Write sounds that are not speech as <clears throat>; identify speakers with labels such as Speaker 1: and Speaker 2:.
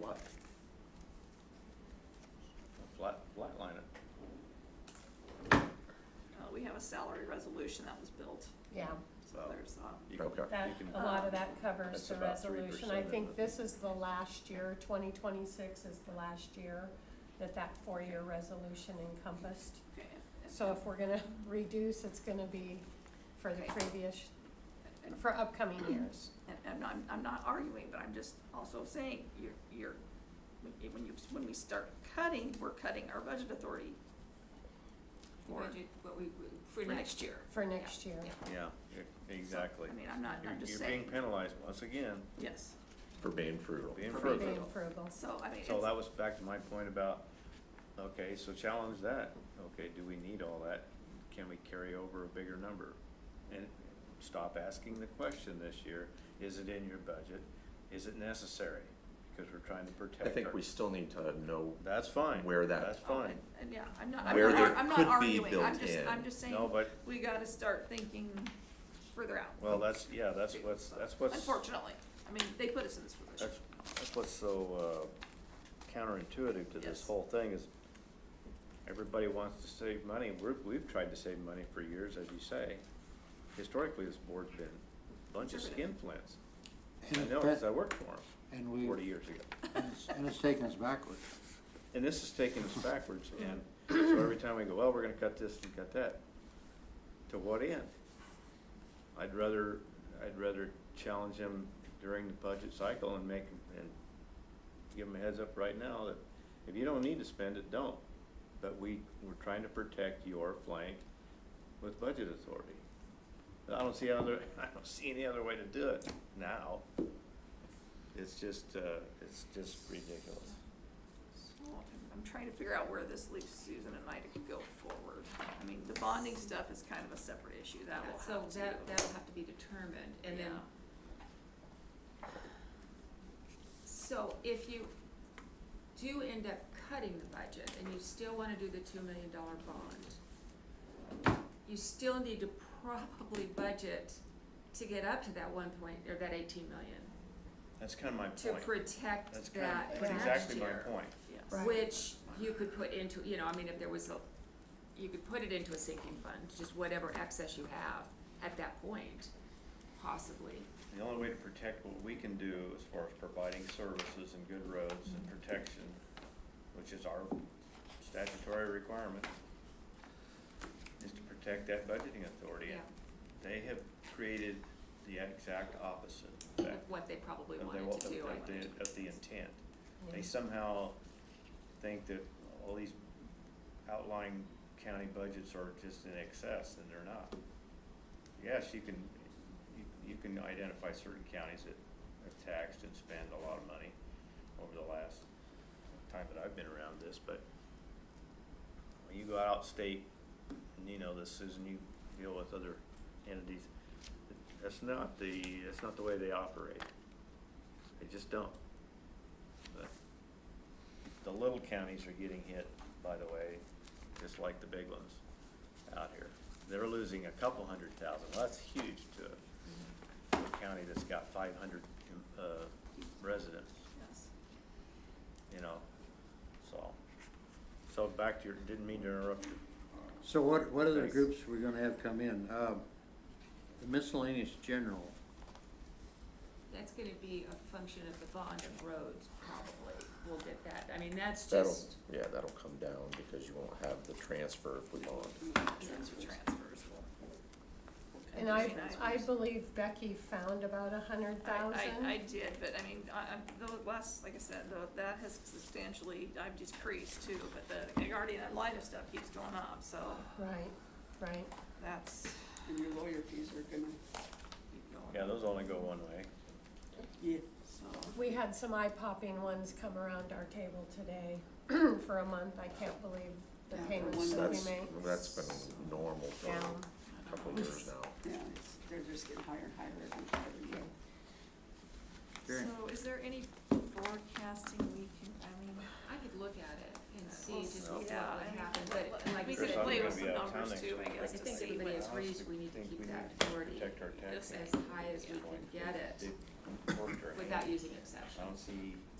Speaker 1: lot. Flat, flatline it.
Speaker 2: Uh, we have a salary resolution that was built,
Speaker 3: Yeah,
Speaker 2: so
Speaker 1: Oh.
Speaker 2: there's, uh,
Speaker 1: You can-
Speaker 4: Okay.
Speaker 3: that,
Speaker 1: you can-
Speaker 3: a lot of that covers
Speaker 1: That's
Speaker 3: the
Speaker 1: about 3%
Speaker 3: resolution. I think
Speaker 1: of the-
Speaker 3: this is the last year, twenty twenty-six is the last year that that four-year resolution encompassed.
Speaker 2: okay. and-
Speaker 3: So if we're gonna reduce, it's gonna be for the previous,
Speaker 2: and-
Speaker 1: <clears throat>
Speaker 3: for upcoming years.
Speaker 2: And, and I'm, I'm not arguing, but I'm just also saying, you're, you're, when you- when you, when we start cutting, we're cutting our budget authority
Speaker 5: The
Speaker 2: for,
Speaker 5: budget, what we,
Speaker 2: for
Speaker 5: for next,
Speaker 2: next year.
Speaker 3: For next year.
Speaker 5: yeah.
Speaker 1: Yeah, e- exactly.
Speaker 2: I mean, I'm not,
Speaker 1: You're-
Speaker 2: oh. I'm just
Speaker 1: You're being
Speaker 2: saying,
Speaker 1: penalized once again,
Speaker 2: yes,
Speaker 4: For being frugal.
Speaker 1: being
Speaker 2: For
Speaker 1: frugal.
Speaker 3: Being frugal.
Speaker 2: so I mean,
Speaker 1: So
Speaker 2: it's,
Speaker 1: that was back to my point about, okay, so challenge that. Okay, do we need all that? Can we carry over a bigger number? And stop asking the question this year, is it in your budget? Is it necessary? Because we're trying to protect
Speaker 4: I
Speaker 1: our.
Speaker 4: think we still need to know,
Speaker 1: That's fine.
Speaker 4: where that-
Speaker 1: That's
Speaker 2: oh,
Speaker 1: fine.
Speaker 2: and, and yeah, I'm not, I'm
Speaker 1: Where
Speaker 2: not, ar-
Speaker 4: there
Speaker 2: I'm not
Speaker 4: could be
Speaker 2: arguing, I'm
Speaker 4: built
Speaker 2: just,
Speaker 4: in.
Speaker 2: I'm just saying,
Speaker 1: No, but,
Speaker 2: we gotta start thinking further out,
Speaker 1: well, that's, yeah, that's what's, that's what's.
Speaker 2: unfortunately. I mean, they put us in this position.
Speaker 1: That's, that's what's so uh, counterintuitive to this
Speaker 2: Yes.
Speaker 1: whole thing is everybody wants to save money. We're, we've tried to save money for years, as you say. Historically, this board's been a bunch of
Speaker 2: Conservative.
Speaker 1: skinflints.
Speaker 6: And Mm.
Speaker 1: I
Speaker 6: it's
Speaker 1: know,
Speaker 6: been-
Speaker 1: because I worked for them
Speaker 6: And we,
Speaker 1: forty
Speaker 6: and
Speaker 1: years ago.
Speaker 6: it's- and it's taken us backwards.
Speaker 1: And this is taking us backwards and so every time we go, well, we're gonna cut this and cut that. To what end? I'd rather, I'd rather challenge them during the budget cycle and make, 'em- and give them a heads up right now that if you don't need to spend it, don't. But we, we're trying to protect your flank with budget authority. I don't see other, <laughs> I don't see any other way to do it now. It's just, uh, it's just ridiculous.
Speaker 2: So, I'm- I'm trying to figure out where this leaves Susan and I to go forward. I mean, the bonding stuff is kind of a separate issue, that will
Speaker 5: so
Speaker 2: have to.
Speaker 5: that, that'll have to be determined, and then.
Speaker 2: Yeah.
Speaker 5: So if you do end up cutting the budget and you still wanna do the two million dollar bond, you still need to probably budget to get up to that one point, or that eighteen million,
Speaker 1: That's kind of my
Speaker 5: to
Speaker 1: point.
Speaker 5: protect
Speaker 1: That's kind
Speaker 5: that
Speaker 1: of,
Speaker 5: next year.
Speaker 1: that's exactly my point.
Speaker 2: Yes.
Speaker 3: Right.
Speaker 5: Which you could put into, you know, I mean, if there was a, you could put it into a sinking fund, just whatever excess you have at that point, possibly.
Speaker 1: The only way to protect what we can do as far as providing services and good roads and protection, which is our statutory requirement, is to protect that budgeting authority.
Speaker 5: Yeah,
Speaker 1: And They have created the exact opposite
Speaker 5: of
Speaker 1: effect
Speaker 5: what they probably
Speaker 1: of the,
Speaker 5: wanted to do, I
Speaker 1: of
Speaker 5: think.
Speaker 1: the, of the intent.
Speaker 3: Yeah.
Speaker 1: They somehow think that all these outlying county budgets are just in excess, and they're not. Yes, you can, you, you can identify certain counties that have taxed and spent a lot of money over the last time that I've been around this, but when you go out state, and you know this, Susan, you deal with other entities, that's not the, that's not the way they operate. They just don't. But The little counties are getting hit, by the way, just like the big ones out here. They're losing a couple hundred thousand, well, that's huge to a- to a county that's got five hundred, uh, residents
Speaker 2: Yes.
Speaker 1: you know, so. So back to your, didn't mean to interrupt you.
Speaker 6: So what, what other
Speaker 1: Thanks.
Speaker 6: groups we're gonna have come in? Um, The miscellaneous general,
Speaker 5: That's gonna be a function of the bond of roads, probably, we'll get that, I mean, that's
Speaker 4: that'll,
Speaker 5: just,
Speaker 4: yeah, that'll come down because you won't have the transfer if we bond.
Speaker 2: Transfer, transfers will. will come
Speaker 3: And I,
Speaker 2: in.
Speaker 3: I believe Becky found about a hundred
Speaker 2: I, I, I
Speaker 3: thousand.
Speaker 2: did, but I mean, I, I, the last, like I said, the, that has substantially, I've decreased too, but the Guardian Ad Litem stuff keeps going up, so
Speaker 3: Right, right.
Speaker 2: that's.
Speaker 7: And your lawyer fees are gonna,
Speaker 2: keep going.
Speaker 1: Yeah, those only go one way.
Speaker 7: yeah,
Speaker 2: So.
Speaker 3: We had some eye-popping ones come around our table today <clears throat> for a month. I can't believe the
Speaker 7: Yeah, for
Speaker 3: payments
Speaker 7: one
Speaker 3: that we
Speaker 4: That's,
Speaker 3: make.
Speaker 4: that's been normal for
Speaker 3: Mm-hmm. Yeah.
Speaker 4: a couple of years now.
Speaker 7: yeah, it's, they're just getting higher and higher every, every year.
Speaker 6: Karen.
Speaker 2: So is there any forecasting we can, I mean,
Speaker 5: I could look at it and
Speaker 2: we'll
Speaker 5: see just
Speaker 2: see,
Speaker 5: what would
Speaker 2: yeah, I mean,
Speaker 5: happen,
Speaker 2: let-
Speaker 5: but like I
Speaker 2: we
Speaker 5: said,
Speaker 2: could
Speaker 1: Chris, I'm
Speaker 2: play
Speaker 1: gonna
Speaker 2: with some
Speaker 1: be out of town
Speaker 2: numbers
Speaker 1: next
Speaker 2: too, I
Speaker 1: week.
Speaker 2: guess,
Speaker 5: I
Speaker 2: to
Speaker 5: think
Speaker 2: see
Speaker 5: everybody
Speaker 2: what-
Speaker 5: has reason we need to
Speaker 1: Think
Speaker 5: keep
Speaker 1: we
Speaker 5: that
Speaker 1: need to
Speaker 5: authority
Speaker 1: Protect our tax.
Speaker 5: as high as we can get it
Speaker 1: Worked our hand.
Speaker 5: without using exceptions.
Speaker 1: I don't see